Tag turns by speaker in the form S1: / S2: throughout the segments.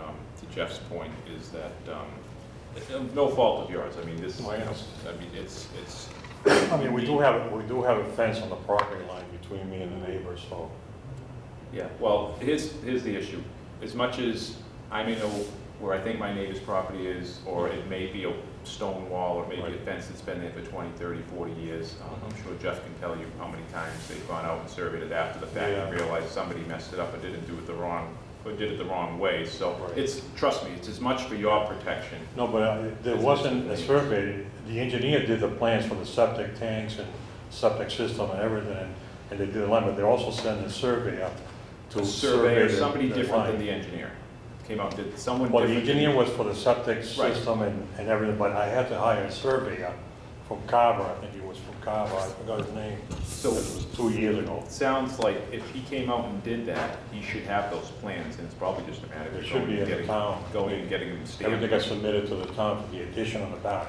S1: Um, Jeff's point is that, um, it- no fault of yours, I mean, this,
S2: Oh, yes.
S1: I mean, it's, it's,
S2: I mean, we do have, we do have a fence on the property line between me and the neighbor, so.
S1: Yeah, well, here's, here's the issue. As much as I may know where I think my neighbor's property is, or it may be a stone wall, or maybe a
S2: Right. Uh-huh.
S1: fence that's been there for 20, 30, 40 years, um, I'm sure Jeff can tell you how many times they've gone out and surveyed it after the fact and
S2: Yeah.
S1: realized somebody messed it up or didn't do it the wrong, or did it the wrong way. So
S2: Right.
S1: it's, trust me, it's as much for your protection.
S2: No, but uh, there wasn't a survey. The engineer did the plans for the septic tanks and septic system and everything, and they did a line, but they also sent a survey out to
S1: A
S2: survey
S1: surveyor,
S2: the
S1: somebody
S2: the
S1: different than
S2: line.
S1: the engineer, came out, did someone
S2: Well,
S1: different.
S2: the
S1: than-
S2: engineer was for the septic
S1: Right.
S2: system and, and everything, but I had to hire a surveyor from Carver, I think he was from Carver, I forgot his name.
S1: So-
S2: This was two years ago.
S1: It sounds like if he came out and did that, he should have those plans, and it's probably just a matter
S2: It
S1: of
S2: should
S1: going
S2: be
S1: and
S2: in the
S1: getting,
S2: town.
S1: going and getting them
S2: Everything got
S1: stamped.
S2: submitted to the town for the addition on the back.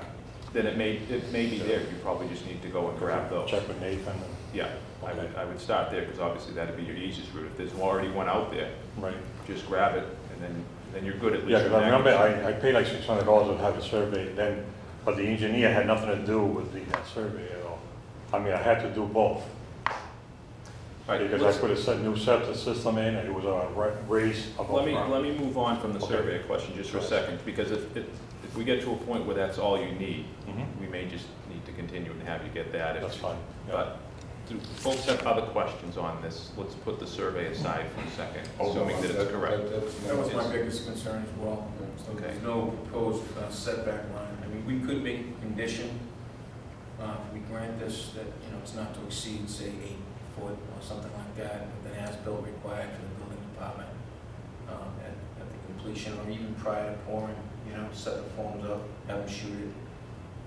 S1: Then it may, it may be there, you probably just need to go and grab those.
S2: Check with Nathan and,
S1: Yeah, I would, I would start there, because obviously that'd be your easiest route. If there's already one out there,
S2: right.
S1: just grab it, and then, then you're good at least.
S2: Yeah, 'cause
S1: with
S2: I
S1: that.
S2: remember I, I paid like six hundred dollars to have a survey then, but the engineer had nothing to do with the, that survey at all. I mean, I had to do both,
S1: All right,
S2: because
S1: let's-
S2: I put a set, new septic system in, and it was on a ra- raise above
S1: Let me, let
S2: ground.
S1: me move on from the
S2: Okay.
S1: survey question just for a second, because if, if, if we get to a point where that's all you need,
S2: Mhm.
S1: we may just need to continue and have you get that. if-
S2: That's fine, yeah.
S1: But do folks have other questions on this? Let's put the survey aside for a second,
S3: Oh, no,
S1: assuming that it's correct.
S3: That
S4: That was
S3: was
S4: my
S3: my
S4: biggest concern as well, so
S1: Okay.
S4: there's no proposed uh, setback line. I mean, we could make a condition, uh, if we grant this, that, you know, it's not to exceed, say, eight foot or something like that, with an as-built required for the building department um, at at the completion, or even prior to pouring, you know, set the forms up, have them shoot it.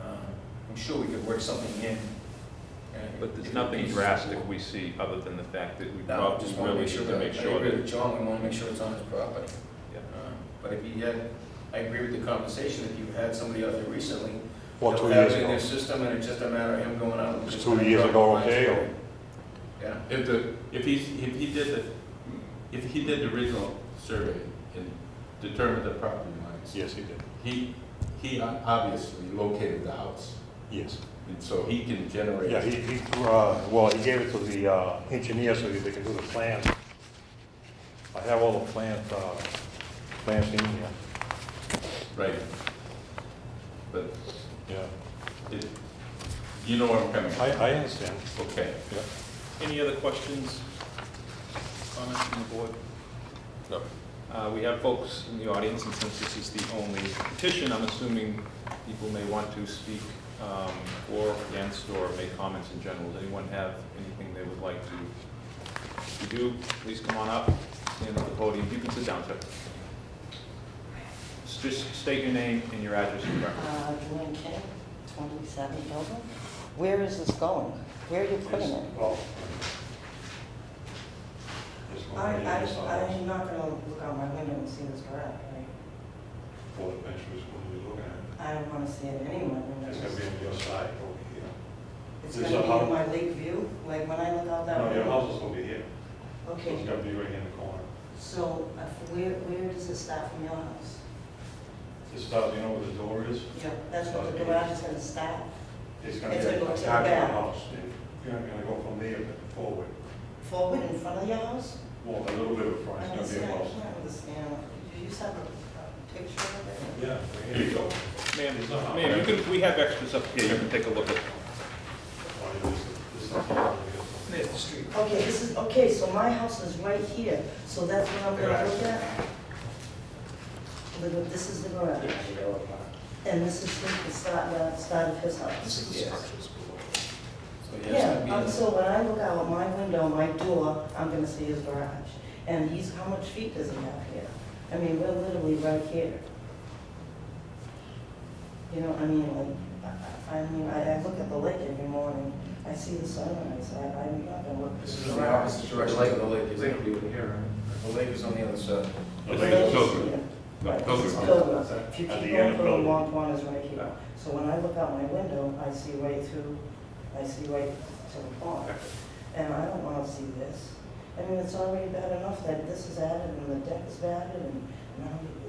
S4: Um, I'm sure we could work something in. uh,
S1: But there's
S4: if it
S1: nothing
S4: is-
S1: drastic we see other than the fact that we
S4: no, I
S1: probably
S4: just want to
S1: really
S4: make
S1: need to
S4: sure, that- I
S1: make sure
S4: agree with
S1: that.
S4: John, we want to make sure it's on his property.
S1: Yeah.
S4: Uh, But if you had, I agree with the conversation, if you had somebody out there recently.
S2: Well,
S4: they'll
S2: two
S4: have
S2: years
S4: it in their
S2: ago,
S4: system, and it's just a matter of him going out. and
S2: It's
S4: just
S2: two
S4: kind of
S2: years
S4: drop
S2: ago,
S4: lines
S2: okay,
S4: for
S2: or-
S4: it. Yeah,
S3: If the, if he, if he did the, if he did the original survey and determined the property lines,
S2: yes, he did,
S3: he, he obviously located the house,
S2: yes.
S3: and so he can generate.
S2: Yeah, he, he, uh, well, he gave it to the uh, engineer so that they can do the plans. I have all the plans, uh, plans in here,
S3: Right. But
S2: yeah.
S3: it, you know where I'm coming
S2: I,
S3: from,
S2: I understand,
S3: okay.
S2: yeah.
S1: Any other questions, comments from the board?
S3: No.
S1: Uh, we have folks in the audience, and since this is the only petition, I'm assuming people may want to speak, um, or against, or make comments in general. Does anyone have anything they would like to, if you do, please come on up, stand at the podium, you can sit down, sir. S- Just state your name and your address and record.
S5: Uh, Lynn King, 27 Dover. Where is this going? Where are you putting it?
S2: Just
S5: I,
S2: wanna
S5: I,
S2: get this out.
S5: I'm not gonna look out my window and see this garage, right?
S2: Well, eventually, it's gonna be looking at.
S5: I don't wanna see it anywhere.
S2: It's gonna be on your side over here.
S5: It's
S2: there's
S5: gonna
S2: a
S5: be in
S2: house-
S5: my lake view, like when I look out that
S2: No, your
S5: window.
S2: house is over here, so it's
S5: Okay,
S2: gonna be right here in the corner.
S5: so uh, where, where does it start from your house?
S2: This is out, you know where the door is?
S5: Yeah. That's where the garage is gonna start?
S2: It's gonna be.
S5: It's gonna go to the
S2: attached
S5: back.
S2: house, and you're gonna go from there forward,
S5: Forward in front of your house?
S2: walk a little bit of
S5: I
S2: front, it's
S5: understand,
S2: gonna be a
S5: I
S2: house.
S5: can't understand. You just have a a picture of it?
S2: Yeah, here you go.
S1: Ma'am, ma'am, you can, we have extras up here, you can take a look at.
S2: Oh, this is- this is the corner.
S1: It's the street.
S5: Okay, this is, okay, so my house is right here, so that's what I'm gonna look at? The gar- This is the garage, and this is the the side, the side of his house.
S4: This is the structures so yeah, it's gonna
S5: Yeah,
S4: be
S5: um,
S4: in-
S5: so when I look out my window, my door, I'm gonna see his garage. And he's, how much feet does he have here? I mean, we're literally right here. You know, I mean, like, I- I, I mean, I, I look at the lake every morning, I see the sunrise, I, I'm not gonna look.
S4: This is the opposite direction of the lake, is it? The lake is on the other side.
S5: Right,
S3: Like, so-
S5: Right,
S3: Those
S5: this is
S3: are-
S5: Pilgrim. If you
S2: At the end
S5: keep going
S2: of
S5: for the
S2: Pilgrim.
S5: long pond is right here. So when I look out my window, I see right through, I see right to the pond. And I don't want to see this. I mean, it's already bad enough that this is added and the deck is added and now